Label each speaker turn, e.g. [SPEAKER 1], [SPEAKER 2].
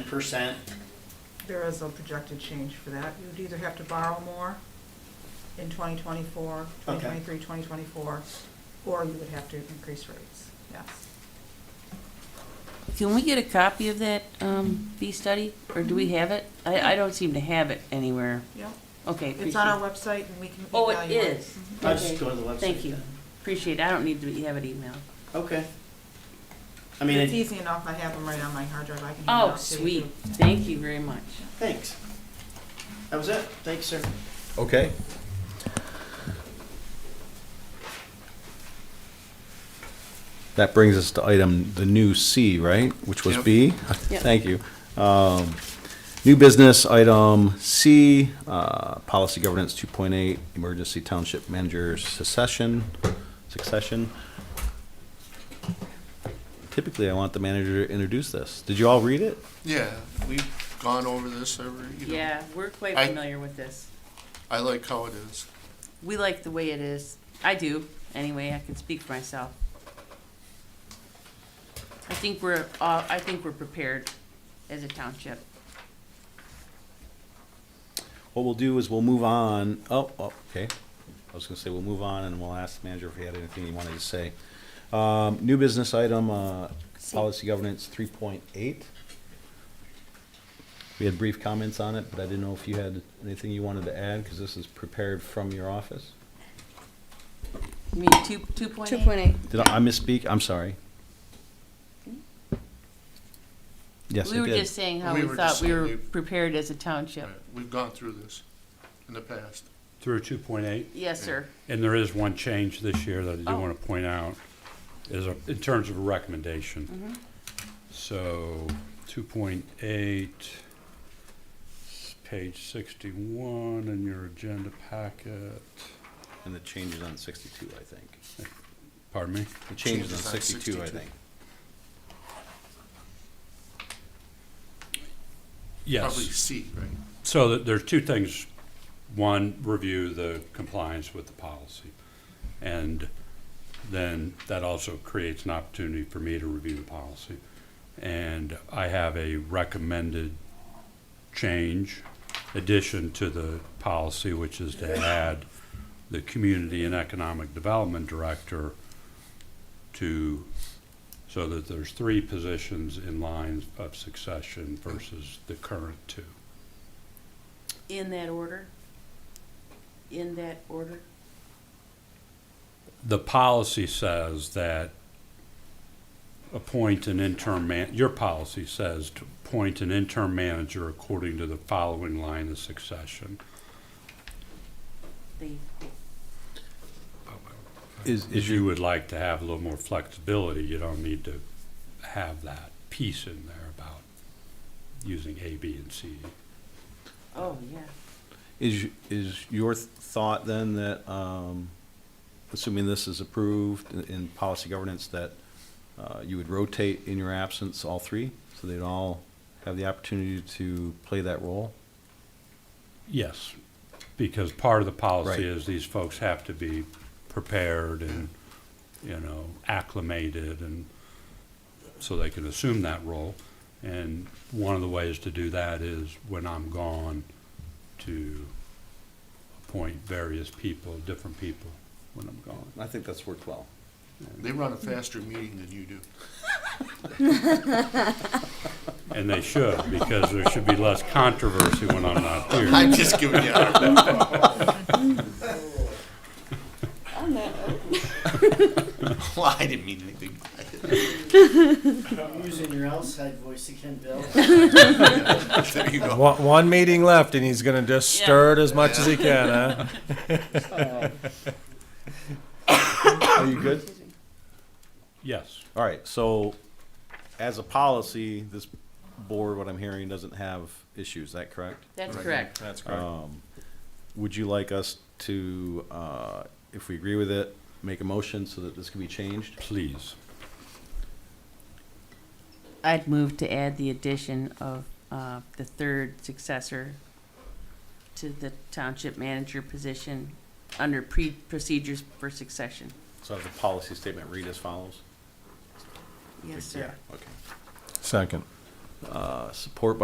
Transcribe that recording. [SPEAKER 1] percent.
[SPEAKER 2] There is a projected change for that. You'd either have to borrow more in 2024,
[SPEAKER 1] Okay.
[SPEAKER 2] 2023, 2024, or you would have to increase rates, yes.
[SPEAKER 3] Can we get a copy of that um, fee study, or do we have it? I, I don't seem to have it anywhere.
[SPEAKER 2] Yep,
[SPEAKER 3] Okay, appreciate.
[SPEAKER 2] it's on our website and we can
[SPEAKER 3] Oh,
[SPEAKER 2] evaluate.
[SPEAKER 3] it is?
[SPEAKER 1] I'll just
[SPEAKER 3] Okay.
[SPEAKER 1] go to the website.
[SPEAKER 3] Thank you.
[SPEAKER 1] then.
[SPEAKER 3] Appreciate, it. I don't need to have it emailed.
[SPEAKER 1] Okay. I mean,
[SPEAKER 2] It's
[SPEAKER 1] it-
[SPEAKER 2] easy enough, I have them right on my hard drive, I can hand it
[SPEAKER 3] Oh,
[SPEAKER 2] out to you.
[SPEAKER 3] sweet, thank you very much.
[SPEAKER 1] thanks. That was it. Thanks, sir.
[SPEAKER 4] Okay. That brings us to item, the new C, right, which was
[SPEAKER 5] Yep.
[SPEAKER 4] B?
[SPEAKER 3] Yep.
[SPEAKER 4] Thank you. Um, New business, item C, uh, policy governance 2.8, emergency township manager succession, succession. Typically, I want the manager to introduce this. Did you all read it?
[SPEAKER 5] Yeah, we've gone over this every, you know.
[SPEAKER 3] Yeah, we're quite
[SPEAKER 5] I-
[SPEAKER 3] familiar with this.
[SPEAKER 5] I like how it is.
[SPEAKER 3] We like the way it is. I do, anyway, I can speak for myself. I think we're, uh, I think we're prepared as a township.
[SPEAKER 4] What we'll do is we'll move on, oh, oh, okay. I was gonna say, we'll move on and we'll ask the manager if he had anything he wanted to say. Um, new business item, uh,
[SPEAKER 3] See.
[SPEAKER 4] policy governance three point eight. We had brief comments on it, but I didn't know if you had anything you wanted to add, because this is prepared from your office.
[SPEAKER 3] You mean two, two point
[SPEAKER 6] Two
[SPEAKER 3] eight?
[SPEAKER 6] point eight.
[SPEAKER 4] Did I I misspeak? I'm sorry. Yes,
[SPEAKER 3] We
[SPEAKER 4] I
[SPEAKER 3] were
[SPEAKER 4] did.
[SPEAKER 3] just saying how
[SPEAKER 5] We
[SPEAKER 3] we
[SPEAKER 5] were
[SPEAKER 3] thought
[SPEAKER 5] just
[SPEAKER 3] we
[SPEAKER 5] saying
[SPEAKER 3] were
[SPEAKER 5] we-
[SPEAKER 3] prepared as a township.
[SPEAKER 5] Right, We've gone through this in the past.
[SPEAKER 7] through two point eight,
[SPEAKER 3] Yes, sir.
[SPEAKER 7] and there is one change this year that I do
[SPEAKER 3] Oh.
[SPEAKER 7] want to point out, is a- in terms of a recommendation. So, two point eight, page sixty-one in your agenda packet,
[SPEAKER 4] And the changes on sixty-two, I think.
[SPEAKER 7] pardon me?
[SPEAKER 4] The changes on
[SPEAKER 5] Changes on
[SPEAKER 4] sixty-two, I
[SPEAKER 5] 62.
[SPEAKER 4] think.
[SPEAKER 5] Probably
[SPEAKER 7] Yes,
[SPEAKER 5] C, right?
[SPEAKER 7] so th- there's two things. One, review the compliance with the policy. And then that also creates an opportunity for me to review the policy. And I have a recommended change, addition to the policy, which is to add the Community and Economic Development Director to, so that there's three positions in line of succession versus the current two.
[SPEAKER 3] In that order? In that order?
[SPEAKER 7] the policy says that appoint an interim man, your policy says to appoint an interim manager according to the following line of succession.
[SPEAKER 3] The,
[SPEAKER 4] Is,
[SPEAKER 7] If
[SPEAKER 4] is
[SPEAKER 7] you
[SPEAKER 4] your,
[SPEAKER 7] would like to have a little more flexibility, you don't need to have that piece in there about using A, B, and C.
[SPEAKER 3] oh, yeah.
[SPEAKER 4] Is, is your th- thought then that, um, assuming this is approved in, in policy governance, that, uh, you would rotate in your absence all three? So they'd all have the opportunity to play that role?
[SPEAKER 7] Yes, because part of the policy
[SPEAKER 4] Right.
[SPEAKER 7] is these folks have to be prepared and, you know, acclimated and so they can assume that role. And one of the ways to do that is when I'm gone to appoint various people, different people when I'm gone.
[SPEAKER 4] I think that's worked well.
[SPEAKER 5] They run a faster meeting than you do.
[SPEAKER 7] And they should, because there should be less controversy when I'm not here.
[SPEAKER 5] I'm just giving you a Well, I didn't mean anything.
[SPEAKER 1] I'm using your outside voice again, Bill.
[SPEAKER 5] There you go.
[SPEAKER 8] One, one meeting left, and he's gonna just
[SPEAKER 3] Yeah.
[SPEAKER 8] stir it as much as he can, huh?
[SPEAKER 4] Are you good?
[SPEAKER 7] Yes,
[SPEAKER 4] All right, so as a policy, this board, what I'm hearing, doesn't have issues, is that correct? Um,
[SPEAKER 3] That's
[SPEAKER 5] Right.
[SPEAKER 3] correct.
[SPEAKER 8] That's correct.
[SPEAKER 4] Would you like us to, uh, if we agree with it, make a motion so that this can be changed?
[SPEAKER 7] please.
[SPEAKER 3] I'd move to add the addition of uh, the third successor to the township manager position under pre- procedures for succession.
[SPEAKER 4] So have the policy statement read as follows?
[SPEAKER 3] Yes, sir.
[SPEAKER 4] Okay.
[SPEAKER 8] Second.
[SPEAKER 4] Uh, Support by